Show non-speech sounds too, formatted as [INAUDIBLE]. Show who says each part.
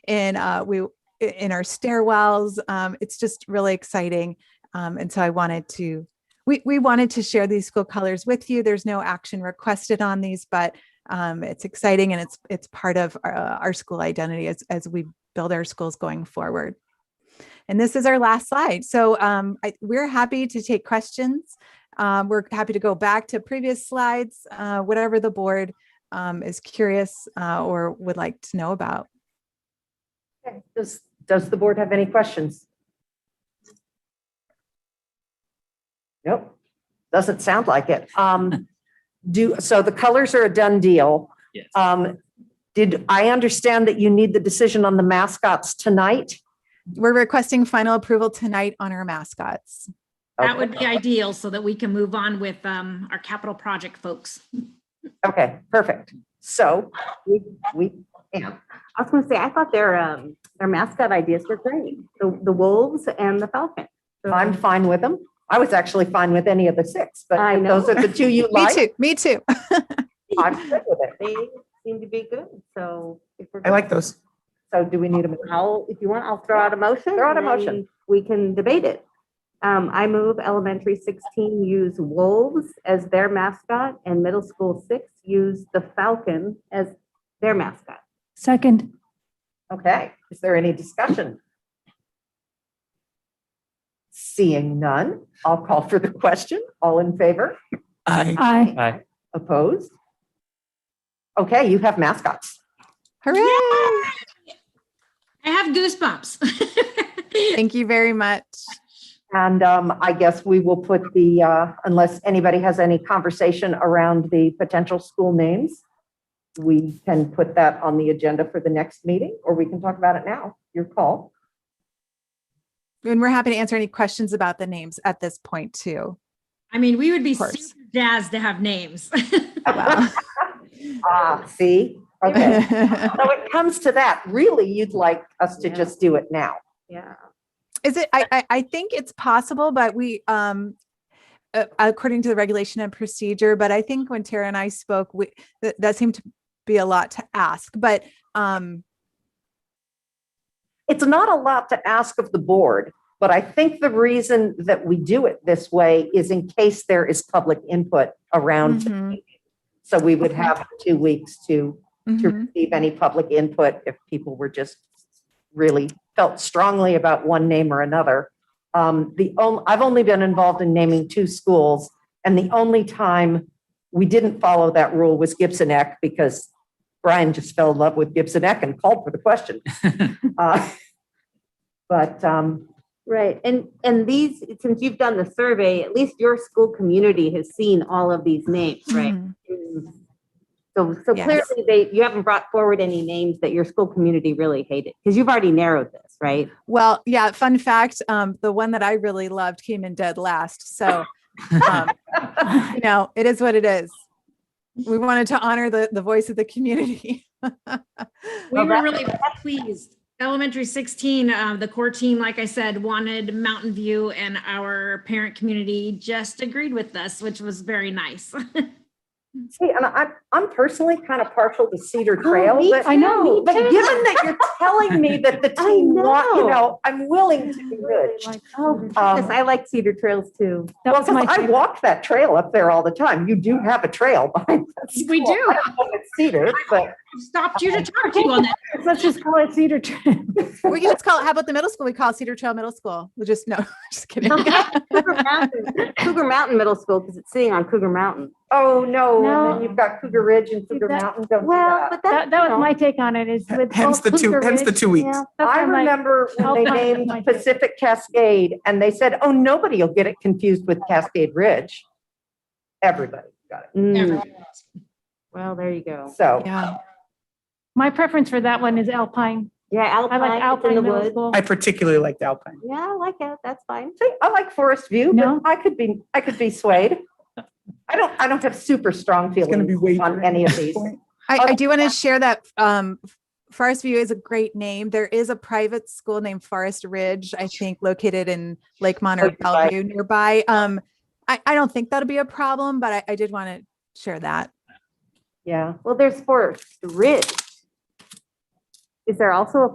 Speaker 1: in uh, we in our stairwells. Um, it's just really exciting, um, and so I wanted to we we wanted to share these school colors with you. There's no action requested on these, but um, it's exciting and it's it's part of our, our school identity as as we build our schools going forward. And this is our last slide. So um, I, we're happy to take questions. Um, we're happy to go back to previous slides, uh, whatever the board um, is curious uh, or would like to know about.
Speaker 2: Okay. Does, does the board have any questions? Nope, doesn't sound like it. Um, do, so the colors are a done deal.
Speaker 3: Yes.
Speaker 2: Um, did, I understand that you need the decision on the mascots tonight?
Speaker 1: We're requesting final approval tonight on our mascots.
Speaker 2: Okay.
Speaker 4: That would be ideal so that we can move on with um, our capital project folks.
Speaker 2: Okay, perfect. So we, we, yeah,
Speaker 5: I was gonna say, I thought their, um, their mascot ideas were great, the, the wolves and the falcon. So-
Speaker 2: I'm fine with them. I was actually fine with any of the six, [LAUGHS] but
Speaker 5: I
Speaker 2: if
Speaker 5: know.
Speaker 2: those are the two you
Speaker 1: [LAUGHS] Me
Speaker 2: like.
Speaker 1: too. Me too.
Speaker 2: [LAUGHS] I'm good with it.
Speaker 5: They seem to be good, so. if we're
Speaker 6: I like those.
Speaker 2: So do we need a?
Speaker 5: I'll, if you want, I'll throw out a motion.
Speaker 2: Throw out a
Speaker 5: and then
Speaker 2: motion.
Speaker 5: We can debate it. Um, I move elementary sixteen use wolves as their mascot and middle school six use the falcon as their mascot.
Speaker 7: Second,
Speaker 2: Okay, is there any discussion? Seeing none, I'll call for the question. All in favor?
Speaker 6: I
Speaker 7: aye.
Speaker 2: Opposed? Okay, you have mascots.
Speaker 1: Hooray.
Speaker 4: I have goosebumps. [LAUGHS]
Speaker 1: Thank you very much.
Speaker 2: And um, I guess we will put the, uh, unless anybody has any conversation around the potential school names, we can put that on the agenda for the next meeting, or we can talk about it now. Your call.
Speaker 1: And we're happy to answer any questions about the names at this point too.
Speaker 4: I mean, we would be
Speaker 1: Of course.
Speaker 4: super jazzed to have names. [LAUGHS]
Speaker 1: Wow.
Speaker 2: Ah, see? [LAUGHS] Okay. So it comes to that, really, you'd like us to
Speaker 5: Yeah.
Speaker 2: just do it now.
Speaker 5: Yeah.
Speaker 1: [LAUGHS] Is it? I, I I think it's possible, but we um, uh, according to the regulation and procedure. But I think when Tara and I spoke, we that, that seemed to be a lot to ask. But um,
Speaker 2: It's not a lot to ask of the board, but I think the reason that we do it this way is in case there is public input around.
Speaker 1: mhm,
Speaker 2: So we would have two weeks to to
Speaker 5: Mm-hmm.
Speaker 1: mhm.
Speaker 2: receive any public input if people were just really felt strongly about one name or another. Um, the, on- I've only been involved in naming two schools and the only time we didn't follow that rule was Gibson Eck because Brian just fell in love with Gibson Eck and called for the
Speaker 5: [LAUGHS]
Speaker 2: question. Uh, But, um,
Speaker 5: Right, and, and these, since you've done the survey, at least your school community has seen all of these names, right?
Speaker 1: Mhm.
Speaker 5: So, so
Speaker 1: Yes.
Speaker 5: clearly they, you haven't brought forward any names that your school community really hated, because you've already narrowed this, right?
Speaker 1: Well, yeah. Fun fact: um, the one that I really loved came in dead last. So, um, you know, it is what it is. We wanted to honor the the voice of the community. [LAUGHS]
Speaker 4: We were really pleased. Elementary 16, uh, the core team, like I said, wanted Mountain View and our parent community just agreed with us, which was very nice.
Speaker 2: see, and I'm, I'm personally kind of partial to Cedar Trail,
Speaker 5: Oh, me
Speaker 2: but,
Speaker 7: I know.
Speaker 2: but given that you're telling me that the
Speaker 5: [LAUGHS] I
Speaker 2: team, want- you
Speaker 5: know.
Speaker 2: know, I'm willing to be rich.
Speaker 7: Um,
Speaker 5: Yes, I like Cedar Trails
Speaker 7: [LAUGHS]
Speaker 5: too.
Speaker 7: Oh, That
Speaker 2: Well,
Speaker 7: was my
Speaker 2: 'cause I
Speaker 7: favorite.
Speaker 2: walk that trail up there all the time. You do have a trail [LAUGHS] behind that
Speaker 4: We
Speaker 2: school.
Speaker 4: do.
Speaker 2: I don't know if it's Cedar, but
Speaker 4: Stopped you to talk to you on that.
Speaker 7: Let's just call it Cedar Trail.
Speaker 1: we can just call it. How about the middle school? We call it Cedar Trail Middle School. We'll just no, [LAUGHS] just
Speaker 5: [LAUGHS]
Speaker 1: kidding.
Speaker 5: Cougar Mountain- Cougar Mountain Middle School, because it's sitting on Cougar Mountain.
Speaker 2: oh no, and then
Speaker 7: No.
Speaker 2: you've got Cougar Ridge and Cougar
Speaker 7: That-
Speaker 2: Mountain. Don't do
Speaker 5: Well,
Speaker 2: that.
Speaker 5: but
Speaker 7: [LAUGHS]
Speaker 5: that,
Speaker 7: That, that was my take on it is with.
Speaker 6: Hence
Speaker 7: both
Speaker 6: the two-
Speaker 7: Cougar
Speaker 6: hence the
Speaker 7: Ridge,
Speaker 6: two weeks.
Speaker 7: yeah, that's
Speaker 2: I
Speaker 7: why my-
Speaker 2: remember when
Speaker 7: I'll
Speaker 2: they
Speaker 7: find it
Speaker 2: named
Speaker 7: like-
Speaker 2: Pacific Cascade and they said, oh, nobody will get it confused with Cascade Ridge. Everybody got
Speaker 5: Mm,
Speaker 4: Everyone.
Speaker 5: Well, there you
Speaker 2: it.
Speaker 5: go.
Speaker 2: So,
Speaker 1: Yeah.
Speaker 7: My preference for that one is Alpine.
Speaker 5: Yeah,
Speaker 7: I like
Speaker 5: Alpine, it's in the
Speaker 7: Alpine Middle
Speaker 5: woods.
Speaker 7: School.
Speaker 6: I particularly liked Alpine.
Speaker 5: Yeah, I like it, that's fine.
Speaker 2: see, I like Forest View, but
Speaker 7: No.
Speaker 2: I could be, I could be swayed. I don't, I don't have super strong
Speaker 6: It's gonna be
Speaker 2: feelings
Speaker 6: way
Speaker 2: on any
Speaker 6: [LAUGHS]
Speaker 2: of these.
Speaker 1: I,
Speaker 2: Oh,
Speaker 1: I do want to share that um, Forest View is a great name. There is a private school named Forest Ridge, I think, located in Lakemont or
Speaker 2: Close by.
Speaker 1: Bellevue nearby. Um, I, I don't think that'll be a problem, but I, I did want to share that.
Speaker 2: Yeah.
Speaker 5: Well, there's Forest Ridge. Is there also a